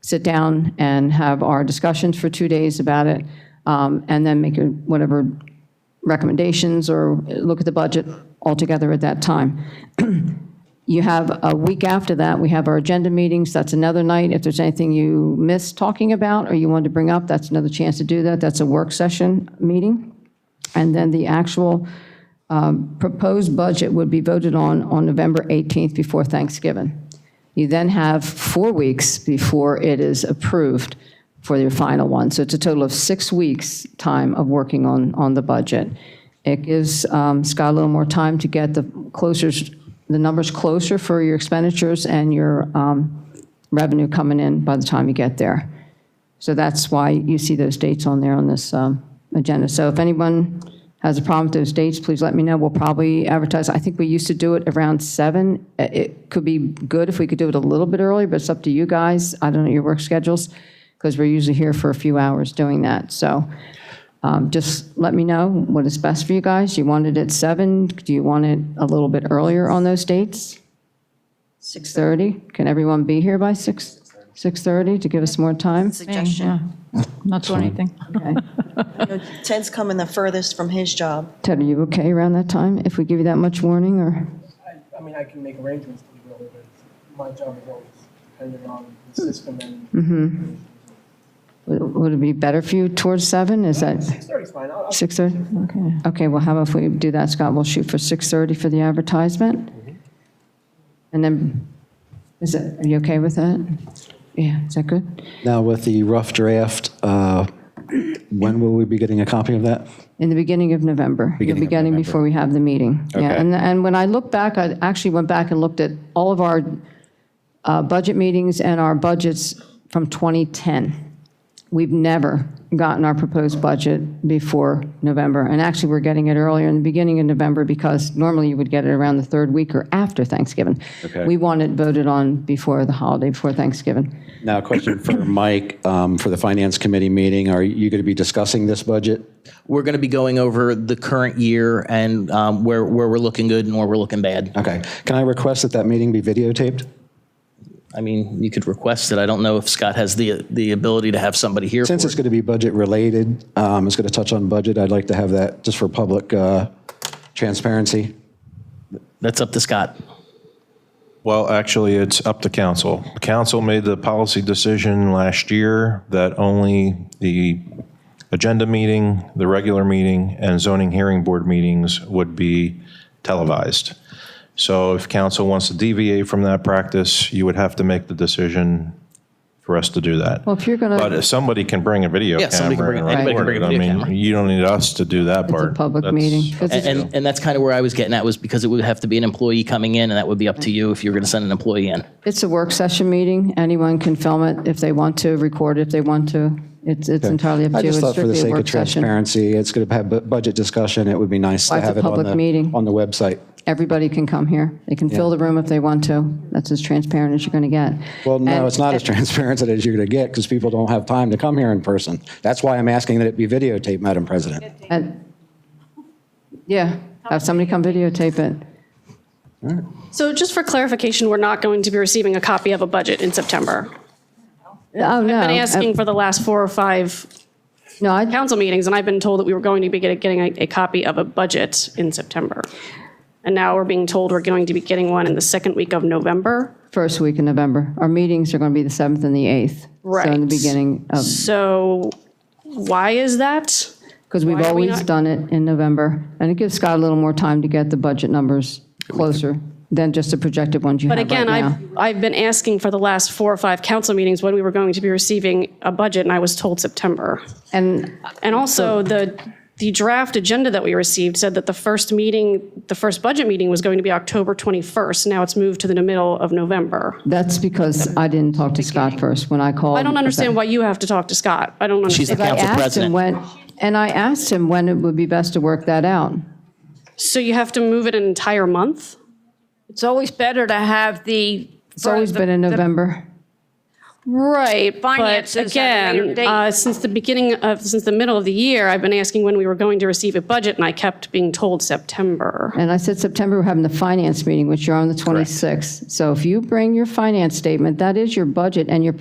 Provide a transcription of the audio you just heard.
sit down and have our discussions for two days about it, um, and then make a- whatever recommendations or look at the budget altogether at that time. You have a week after that, we have our agenda meetings, that's another night. If there's anything you missed talking about or you wanted to bring up, that's another chance to do that. That's a work session meeting. And then the actual um, proposed budget would be voted on on November 18th before Thanksgiving. You then have four weeks before it is approved for your final one. So it's a total of six weeks' time of working on, on the budget. It gives um, Scott a little more time to get the closer, the numbers closer for your expenditures and your um, revenue coming in by the time you get there. So that's why you see those dates on there on this um, agenda. So if anyone has a problem with those dates, please let me know. We'll probably advertise, I think we used to do it around seven. Uh, It could be good if we could do it a little bit earlier, but it's up to you guys. I don't know your work schedules, because we're usually here for a few hours doing that. So um, just let me know what is best for you guys. You want it at seven? Do you want it a little bit earlier on those dates? 6:30? Can everyone be here by 6, 6:30 to give us more time? suggestion. Not doing anything. Okay. Ted's coming the furthest from his job. Ted, are you okay around that time, if we give you that much warning, or? I, I mean, I can make arrangements to be early, but my job is always dependent on the system and Would would it be better for you towards 7? Is that six thirty's fine. I'll, I'll 6:30? Okay. Okay, well, how about if we do that, Scott? We'll shoot for 6:30 for the advertisement? And then, is it, are you okay with that? Yeah, is that good? Now, with the rough draft, uh, when will we be getting a copy of that? In the beginning of November. Beginning You'll of be getting November. before we have the meeting. Yeah, Okay. and, and when I look back, I actually went back and looked at all of our uh, budget meetings and our budgets from 2010. We've never gotten our proposed budget before November, and actually, we're getting it earlier in the beginning of November because normally you would get it around the third week or after Thanksgiving. Okay. We want it voted on before the holiday, before Thanksgiving. Now, a question for Mike, um, for the Finance Committee meeting, are you going to be discussing this budget? We're going to be going over the current year and um, where, where we're looking good and where we're looking bad. Okay, can I request that that meeting be videotaped? I mean, you could request it. I don't know if Scott has the, the ability to have somebody here for Since it's it. going to be budget-related, um, it's going to touch on budget, I'd like to have that just for public uh, transparency. That's up to Scott. Well, actually, it's up to council. Council made the policy decision last year that only the agenda meeting, the regular meeting, and zoning hearing board meetings would be televised. So if council wants to deviate from that practice, you would have to make the decision for us to do that. Well, if you're going But to, if somebody can bring a video Yeah, somebody can camera bring- and anybody can bring record it. a I video camera. mean, you don't need us to do that it's part. a public That's- meeting. 'cause it's- And, and that's kind of where I was getting at was because it would have to be an employee coming in and that would be up to you if you were going to send an employee in. It's a work session meeting. Anyone can film it if they want to, record it if they want to. It's it's entirely up to I you. It's just thought for the strictly a sake of work session. transparency, it's going to have bu- budget discussion, it would be nice Why to it's a have it on public meeting? the, on the website. Everybody can come here. They can fill the room if they want to. That's as transparent as you're going to get. Well, And- no, it's not as transparent as you're going to get because people don't have time to come here in person. That's why I'm asking that it be videotaped, Madam President. and- Yeah, have somebody come videotape it. So just for clarification, we're not going to be receiving a copy of a budget in September. Oh, no. I've been asking for the last four or five No, I- council meetings, and I've been told that we were going to be get- getting a, a copy of a budget in September. And now we're being told we're going to be getting one in the second week of November. first week in November. Our meetings are going to be the 7th and the 8th. So in the Right. beginning of So why is that? Because we've Why are we always not- done it in November, and it gives Scott a little more time to get the budget numbers closer than just the projected ones you have But right now. again, I've, I've been asking for the last four or five council meetings when we were going to be receiving a budget, and I was told September. And And also, the, the draft agenda that we received said that the first meeting, the first budget meeting was going to be October 21st. Now it's moved to the middle of November. that's because I didn't talk to Scott first when I called. I don't understand why you have to talk to Scott. I don't She's the understand. I council asked him president. when, and I asked him when it would be best to work that out. So you have to move it an entire month? It's always better to have the. It's always been in November. Right, but Finances at a later again, date. uh, since the beginning of, since the middle of the year, I've been asking when we were going to receive a budget, and I kept being told September. And I said September, we're having the finance meeting, which you're on the 26th. So if you bring your finance statement, that is your budget and your